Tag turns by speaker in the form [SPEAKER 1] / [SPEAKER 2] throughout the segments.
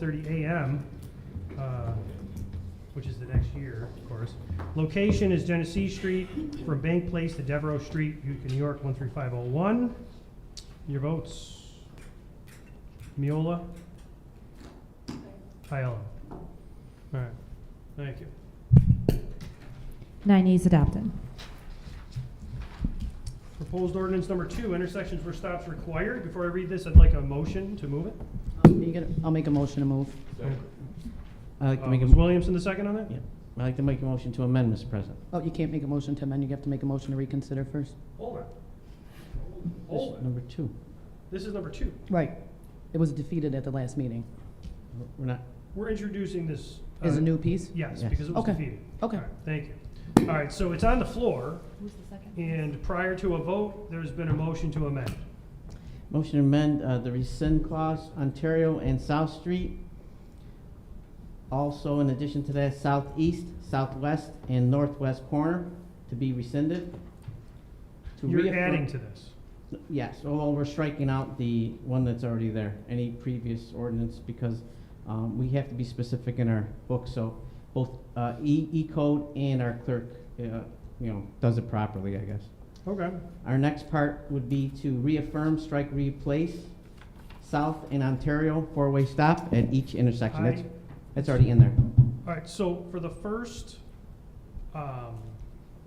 [SPEAKER 1] 30 a.m., uh, which is the next year, of course. Location is Genesee Street from Bank Place to Devereaux Street, Utica, New York, 13501. Your votes. Miola? Aiello? All right, thank you.
[SPEAKER 2] Nine E's adopted.
[SPEAKER 1] Proposed ordinance number two, intersections where stops required. Before I read this, I'd like a motion to move it.
[SPEAKER 3] Are you gonna- I'll make a motion to move.
[SPEAKER 4] I'd like
[SPEAKER 1] Uh,
[SPEAKER 4] to make
[SPEAKER 1] Was
[SPEAKER 4] a,
[SPEAKER 1] Williamson the second on that?
[SPEAKER 4] Yeah. I'd like to make a motion to amend, Mr. President.
[SPEAKER 3] Oh, you can't make a motion to amend, you have to make a motion to reconsider first.
[SPEAKER 1] Hold on.
[SPEAKER 4] This
[SPEAKER 1] Hold
[SPEAKER 4] is
[SPEAKER 1] on.
[SPEAKER 4] Number two.
[SPEAKER 1] This is number two.
[SPEAKER 3] Right. It was defeated at the last meeting.
[SPEAKER 4] We're not,
[SPEAKER 1] We're introducing this. uh,
[SPEAKER 3] Is a new piece?
[SPEAKER 1] Yes,
[SPEAKER 4] Yes.
[SPEAKER 1] because it was
[SPEAKER 3] Okay.
[SPEAKER 1] defeated.
[SPEAKER 3] Okay.
[SPEAKER 1] All right, Thank you. All right, so it's on the floor,
[SPEAKER 2] Who's the second?
[SPEAKER 1] and prior to a vote, there's been a motion to amend.
[SPEAKER 4] motion to amend uh, the rescind clause, Ontario and South Street. Also, in addition to that, southeast, southwest, and northwest corner to be rescinded. To
[SPEAKER 1] You're
[SPEAKER 4] reaffirm-
[SPEAKER 1] adding to this.
[SPEAKER 4] Yes, well, we're striking out the one that's already there, any previous ordinance, because um, we have to be specific in our book, so both uh, E, E code and our clerk, uh, you know, does it properly, I guess.
[SPEAKER 1] Okay.
[SPEAKER 4] Our next part would be to reaffirm, strike, replace South and Ontario four-way stop at each intersection. That's,
[SPEAKER 1] I-
[SPEAKER 4] that's already in there.
[SPEAKER 1] All right, so for the first, um.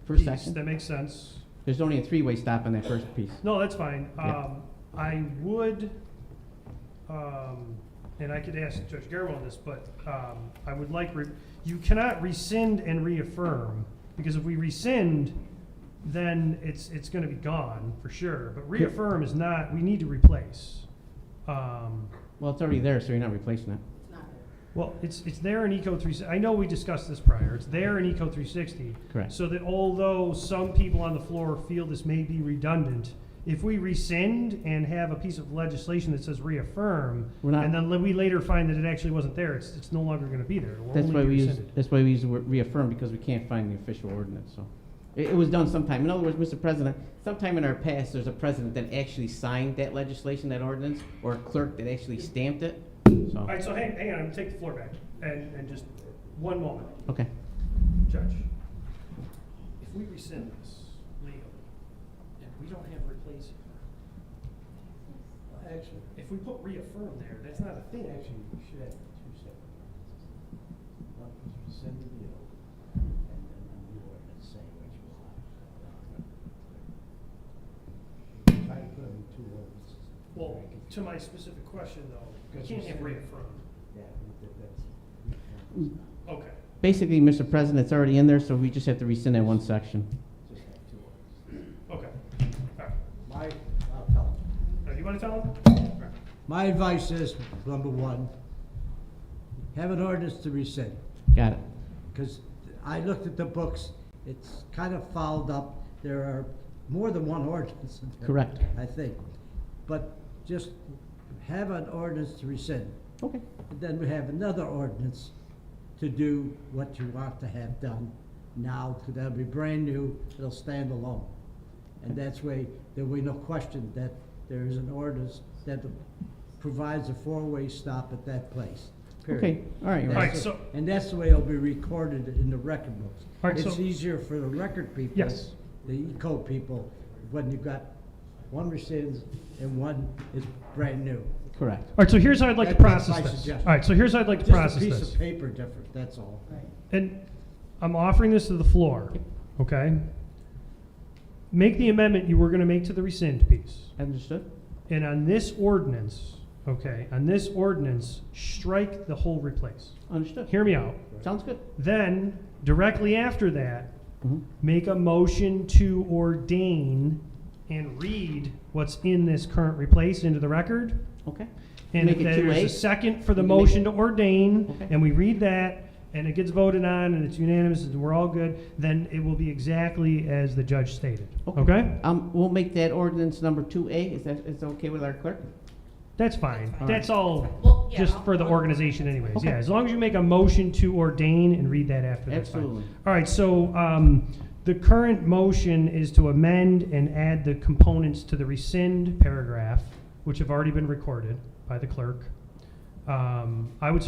[SPEAKER 4] First
[SPEAKER 1] piece, That
[SPEAKER 4] section,
[SPEAKER 1] makes sense.
[SPEAKER 4] there's only a three-way stop on that first piece.
[SPEAKER 1] No, that's fine.
[SPEAKER 4] Yeah.
[SPEAKER 1] Um, I would, um, and I could ask Judge Garwell on this, but, um, I would like, re- you cannot rescind and reaffirm, because if we rescind, then it's, it's gonna be gone, for sure, but reaffirm is not, we need to replace. Um,
[SPEAKER 4] Well, it's already there, so you're not replacing it.
[SPEAKER 1] well, it's, it's there in Eco three, I know we discussed this prior, it's there in Eco three sixty,
[SPEAKER 4] Correct.
[SPEAKER 1] so that although some people on the floor feel this may be redundant, if we rescind and have a piece of legislation that says reaffirm,
[SPEAKER 4] We're not-
[SPEAKER 1] and then la- we later find that it actually wasn't there, it's, it's no longer gonna be there. It will
[SPEAKER 4] That's
[SPEAKER 1] only
[SPEAKER 4] why
[SPEAKER 1] be
[SPEAKER 4] we use,
[SPEAKER 1] rescinded.
[SPEAKER 4] that's why we use the word reaffirm, because we can't find the official ordinance, so. It, it was done sometime, in other words, Mr. President, sometime in our past, there's a president that actually signed that legislation, that ordinance, or a clerk that actually stamped it,
[SPEAKER 1] All
[SPEAKER 4] so,
[SPEAKER 1] right, so hang, hang on, I'm gonna take the floor back, and, and just, one moment,
[SPEAKER 4] okay.
[SPEAKER 1] Judge. If we rescind this legally, and we don't have replacing,
[SPEAKER 5] Actually,
[SPEAKER 1] if we put reaffirm there, that's not a thing.
[SPEAKER 5] actually, we should have two separate ordinances. One is rescind the deal, and then the new ordinance saying what you want. Try to put them in two ordinances.
[SPEAKER 1] Well, to my specific question though, we can't have reaffirm.
[SPEAKER 5] Yeah, we did that.
[SPEAKER 1] Okay.
[SPEAKER 4] Basically, Mr. President, it's already in there, so we just have to rescind that one section.
[SPEAKER 5] Just have two ordinances.
[SPEAKER 1] Okay. All right.
[SPEAKER 5] My, I'll tell them.
[SPEAKER 1] Now, you want to tell them? All right.
[SPEAKER 6] My advice is, number one, have an ordinance to rescind,
[SPEAKER 4] Got it.
[SPEAKER 6] because I looked at the books, it's kind of fouled up. There are more than one ordinance. in there,
[SPEAKER 4] Correct.
[SPEAKER 6] I think. But just have an ordinance to rescind.
[SPEAKER 4] Okay.
[SPEAKER 6] And Then we have another ordinance to do what you want to have done now, 'cause that'll be brand new, it'll stand alone. And that's way, there will be no question that there is an ordinance that provides a four-way stop at that place,
[SPEAKER 4] Okay,
[SPEAKER 6] period.
[SPEAKER 4] all right,
[SPEAKER 6] And
[SPEAKER 4] you're
[SPEAKER 1] All right,
[SPEAKER 4] right.
[SPEAKER 6] that's-
[SPEAKER 1] so-
[SPEAKER 6] And that's the way it'll be recorded in the record books.
[SPEAKER 1] All right,
[SPEAKER 6] It's
[SPEAKER 1] so-
[SPEAKER 6] easier for the record people.
[SPEAKER 1] Yes.
[SPEAKER 6] The E-code people, when you've got one rescinds and one is brand new.
[SPEAKER 4] correct.
[SPEAKER 1] All right, so here's how I'd like to
[SPEAKER 6] That- that's
[SPEAKER 1] process
[SPEAKER 6] my
[SPEAKER 1] this. All
[SPEAKER 6] suggestion.
[SPEAKER 1] right, so here's how I'd like to
[SPEAKER 6] Just a
[SPEAKER 1] process
[SPEAKER 6] piece
[SPEAKER 1] this.
[SPEAKER 6] of paper different, that's all.
[SPEAKER 1] And I'm offering this to the floor, okay? Make the amendment you were going to make to the rescind piece.
[SPEAKER 4] Understood?
[SPEAKER 1] And on this ordinance, okay, on this ordinance, strike the whole replace.
[SPEAKER 4] Understood.
[SPEAKER 1] Hear me out.
[SPEAKER 4] Sounds good.
[SPEAKER 1] Then, directly after that,
[SPEAKER 4] Mhm.
[SPEAKER 1] make a motion to ordain and read what's in this current replace into the record.
[SPEAKER 4] Okay,
[SPEAKER 1] And if
[SPEAKER 4] Make it two
[SPEAKER 1] there's a
[SPEAKER 4] eight.
[SPEAKER 1] second for the
[SPEAKER 4] You can make-
[SPEAKER 1] motion to ordain,
[SPEAKER 4] Okay.
[SPEAKER 1] and we read that, and it gets voted on, and it's unanimous, and we're all good, then it will be exactly as the judge stated,
[SPEAKER 4] Okay.
[SPEAKER 1] okay?
[SPEAKER 4] um, we'll make that ordinance number two A, is that, is that okay with our clerk?
[SPEAKER 1] That's fine,
[SPEAKER 4] All
[SPEAKER 1] that's all,
[SPEAKER 7] Well, yeah,
[SPEAKER 1] Oh, just
[SPEAKER 7] I'll-
[SPEAKER 1] for the
[SPEAKER 7] I'll-
[SPEAKER 1] organization anyways,
[SPEAKER 4] Okay.
[SPEAKER 1] yeah, as long as you make a motion to ordain and read that after, that's fine.
[SPEAKER 4] Absolutely.
[SPEAKER 1] All right, so, um, the current motion is to amend and add the components to the rescind paragraph, which have already been recorded by the clerk. Um, I would suggest